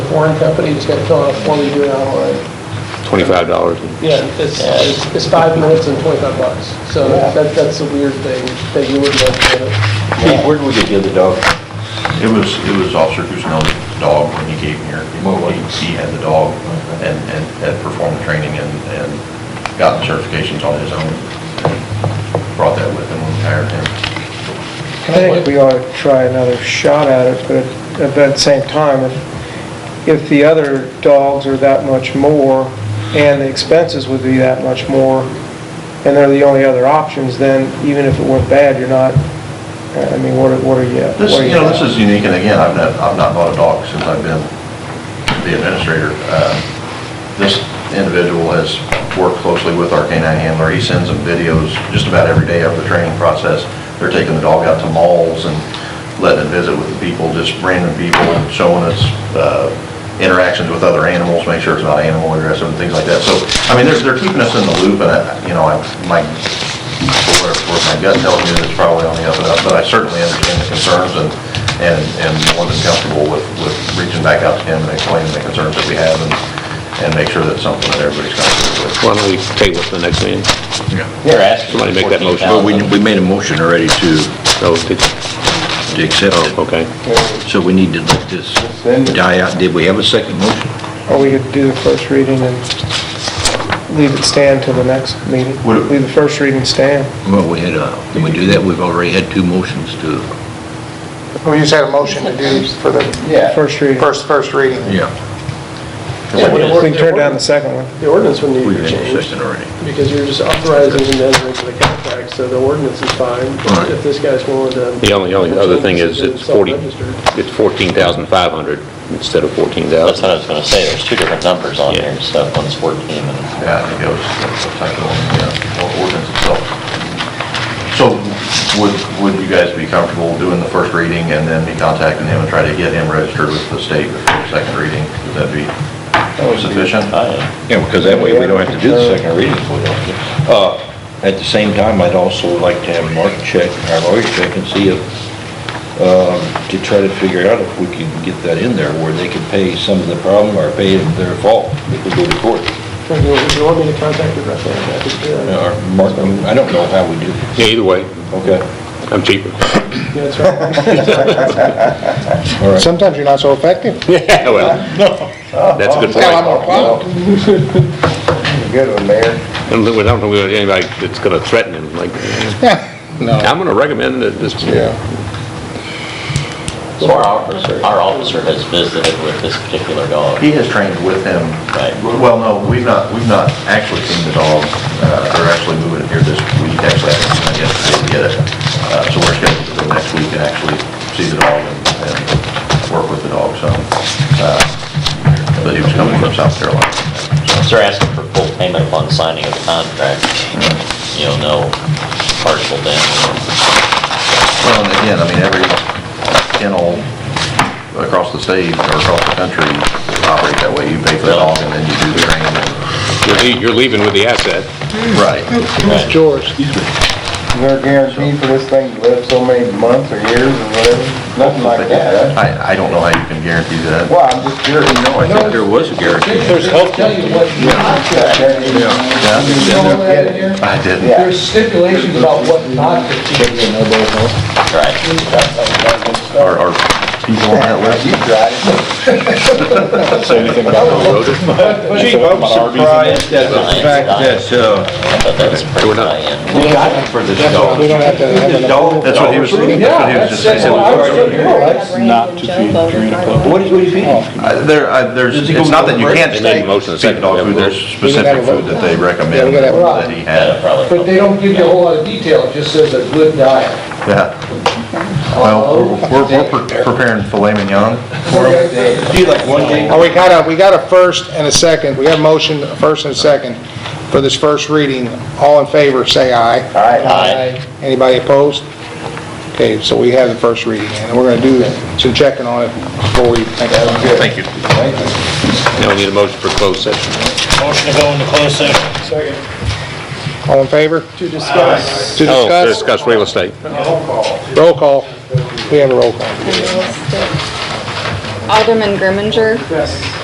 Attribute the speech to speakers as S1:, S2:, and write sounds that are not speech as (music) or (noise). S1: Warren Company, just gotta fill out a form, you do it online.
S2: Twenty-five dollars.
S1: Yeah, it's, it's- it's five minutes and twenty-five bucks, so that, that's a weird thing that you wouldn't have to it.
S3: Pete, where did we get the other dog?
S4: It was, it was Officer Guzman's dog when he gave me her, he, he had the dog and, and had performed training and, and gotten certifications on his own. Brought that with him when he hired him.
S5: I think we ought to try another shot at it, but at that same time, if, if the other dogs are that much more, and the expenses would be that much more, and they're the only other options, then even if it went bad, you're not, I mean, what are, what are you?
S4: This,
S5: what are
S4: you know,
S5: at?
S4: this is unique, and again, I've not, I've not bought a dog since I've been the administrator. Uh, This individual has worked closely with our canine handler. He sends them videos just about every day of the training process. They're taking the dog out to malls and letting it visit with the people, just random people, and showing its uh, interactions with other animals, make sure it's not animal aggressive and things like that. So, I mean, they're, they're keeping us in the loop, and, I- you know, I, my for what it's worth. My gut tells me that it's probably on the up and up, but I certainly understand the concerns and, and, and more than comfortable with, with reaching back out to him and explaining the concerns that we have and, and make sure that's something that everybody's comfortable with.
S2: Why don't we table it for the next meeting?
S3: They're asking.
S2: Somebody make that motion.
S6: Well, we, we made a motion already to,
S2: No, did,
S6: to accept it,
S2: okay.
S6: so we need to let this die out. Did we have a second motion?
S5: Or we could do the first reading and leave it stand till the next meeting.
S4: Would it-
S5: Leave the first reading stand.
S6: Well, we had, uh, can we do that? We've already had two motions to,
S7: We just had a motion to do for the
S5: First reading.
S7: first, first reading.
S6: yeah,
S5: We can turn down the second one.
S1: The ordinance would need
S6: we've
S1: to be
S6: had a
S1: changed,
S6: second already.
S1: because you're just authorizing and entering into the contract, so the ordinance is fine,
S6: Right.
S1: if this guy's willing to.
S2: The only, only other thing is it's forty,
S1: Self-registered.
S2: it's fourteen thousand five hundred instead of fourteen
S3: That's
S2: thousand.
S3: what I was gonna say, there's two different numbers on
S2: Yeah.
S3: there, so one's 14 and...
S4: Yeah, I think that was, that's a typo in the uh, ordinance itself. So would, would you guys be comfortable doing the first reading and then be contacting him and try to get him registered with the state before the second reading? Would that be sufficient?
S3: I-
S6: Yeah, because that way we don't have to do the second reading. if we don't. Uh, At the same time, I'd also like to have Mark check, our lawyer check and see if, um, to try to figure out if we can get that in there where they can pay some of the problem or pay it their fault if we go to court.
S1: Or Do you do you want me to contact your rep? I could do that.
S6: Or Uh, Mark, I mean, I don't know how we do.
S2: Yeah, either way,
S6: Okay.
S2: I'm cheaper.
S1: Yeah, That's right.
S6: All right.
S7: Sometimes you're not so effective.
S2: Yeah, (laughs) well, that's a good point. I
S7: (laughs) Good one, Mayor.
S2: don't think, we don't think we got anybody that's gonna threaten him, like, I'm gonna recommend that this,
S3: So our officer, our officer has visited with this particular dog.
S4: He has trained with him.
S3: Right.
S4: Well, no, we've not, we've not actually seen the dog. Uh, They're actually moving it here this week, actually, I haven't seen it yet, I didn't get it. Uh, So we're scheduled to go next week and actually see the dog and and work with the dog, so. uh, But he was coming from South Carolina.
S3: So They're asking for full payment upon signing of the contract, you know, no partial down.
S4: Well, and again, I mean, every kennel across the state or across the country operates that way. You pay for the dog and then you do the training.
S2: you're lea- you're leaving with the asset.
S4: Right.
S3: Right.
S7: George.
S8: Is there a guarantee for this thing to live so many months or years or whatever? Nothing like that. huh?
S4: I, I don't know how you can guarantee that.
S8: Well, I'm just curious.
S4: No, Oh, I think there was a guarantee.
S8: There's health. Tell you what. Yeah.
S4: I didn't.
S8: Yeah.
S1: stipulations about what not to
S3: Right.
S4: Are, are people on that list?
S8: You tried it.
S6: Chief, I'm surprised at the fact that, uh,
S3: I thought that was pretty high-end.
S4: For this dog.
S5: We don't have to have another.
S4: That's what he was, that's what he was just saying.
S9: not to feed, three and a half.
S6: what is, what is he?
S4: Uh, There, uh, there's, it's not that you can't
S2: They made a motion to
S4: feed the dog
S2: second.
S4: food, there's specific food that they recommend that he
S3: Yeah,
S4: had.
S3: probably.
S1: But they don't give you a whole lot of detail, it just says a good diet.
S4: Yeah. Well, we're, we're pre- preparing filet mignon.
S6: He like one day
S7: Oh, we got a, we got a first and a second. We got a motion, a first and a second for this first reading. All in favor, say aye.
S8: All right.
S3: Aye.
S7: Anybody opposed? Okay, so we have the first reading, and we're gonna do some checking on it before we think about it.
S2: Thank you. Now we need a motion for closed session.
S10: Motion to go into closed session.
S7: All in favor?
S1: To discuss.
S7: To
S2: Oh,
S7: discuss?
S2: to Discuss real estate.
S7: Roll call. We have a roll call.
S9: Alderman Grimminger?